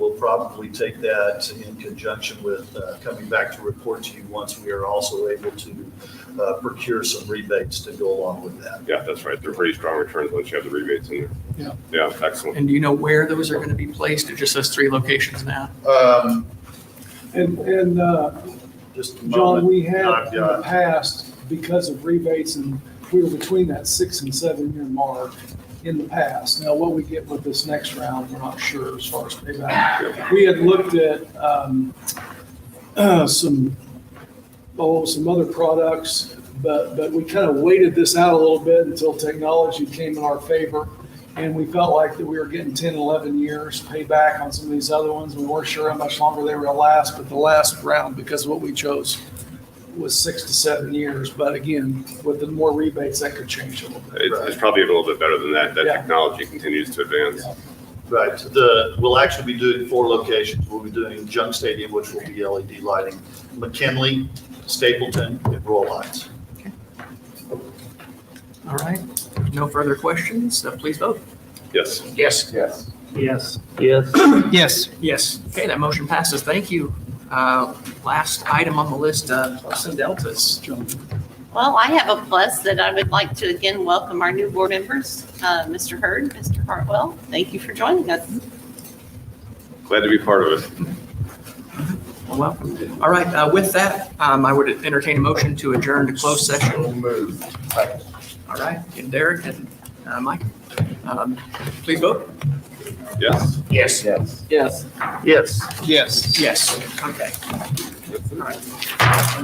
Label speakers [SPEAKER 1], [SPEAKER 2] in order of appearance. [SPEAKER 1] probably take that in conjunction with uh, coming back to report to you once we are also able to uh, procure some rebates to go along with that.
[SPEAKER 2] Yeah, that's right. They're pretty strong returns once you have the rebates in there.
[SPEAKER 3] Yeah.
[SPEAKER 2] Yeah, excellent.
[SPEAKER 3] And do you know where those are going to be placed? It just says three locations now.
[SPEAKER 1] Um,
[SPEAKER 4] And, and, uh,
[SPEAKER 1] Just a
[SPEAKER 4] John,
[SPEAKER 1] moment.
[SPEAKER 4] we have
[SPEAKER 1] I've
[SPEAKER 4] in the
[SPEAKER 1] got-
[SPEAKER 4] past, because of rebates and we were between that six and seven year mark in the past. Now, what we get with this next round, we're not sure as far as payback. We had looked at, um, uh, some, oh, some other products, but, but we kind of waited this out a little bit until technology came in our favor. And we felt like that we were getting 10, 11 years payback on some of these other ones. We weren't sure how much longer they were gonna last, but the last round, because what we chose was six to seven years. But again, with the more rebates, that could change a little bit.
[SPEAKER 2] It's, it's probably a little bit better than that. That
[SPEAKER 4] Yeah.
[SPEAKER 2] technology continues to advance.
[SPEAKER 1] Right, the, we'll actually be doing four locations. We'll be doing Junk Stadium, which will be LED lighting, McKinley, Stapleton, and Royal Heights.
[SPEAKER 3] All right. No further questions. Uh, Please vote.
[SPEAKER 2] Yes.
[SPEAKER 3] Yes.
[SPEAKER 5] Yes.
[SPEAKER 6] Yes. Yes.
[SPEAKER 7] Yes.
[SPEAKER 3] Yes. Okay, that motion passes. Thank you. Uh, Last item on the list, uh, plus and deltas.
[SPEAKER 4] John.
[SPEAKER 8] Well, I have a plus that I would like to again welcome our new board members, uh, Mr. Hurd, Mr. Hartwell. Thank you for joining us.
[SPEAKER 2] Glad to be part of it.
[SPEAKER 3] Well, all right, uh, with that, um, I would entertain a motion to adjourn to closed session.
[SPEAKER 5] Move.
[SPEAKER 3] All right, and Derek and uh, Mike, um, please vote.
[SPEAKER 2] Yes.
[SPEAKER 3] Yes.
[SPEAKER 5] Yes.
[SPEAKER 6] Yes.
[SPEAKER 7] Yes.
[SPEAKER 3] Yes, okay. All right.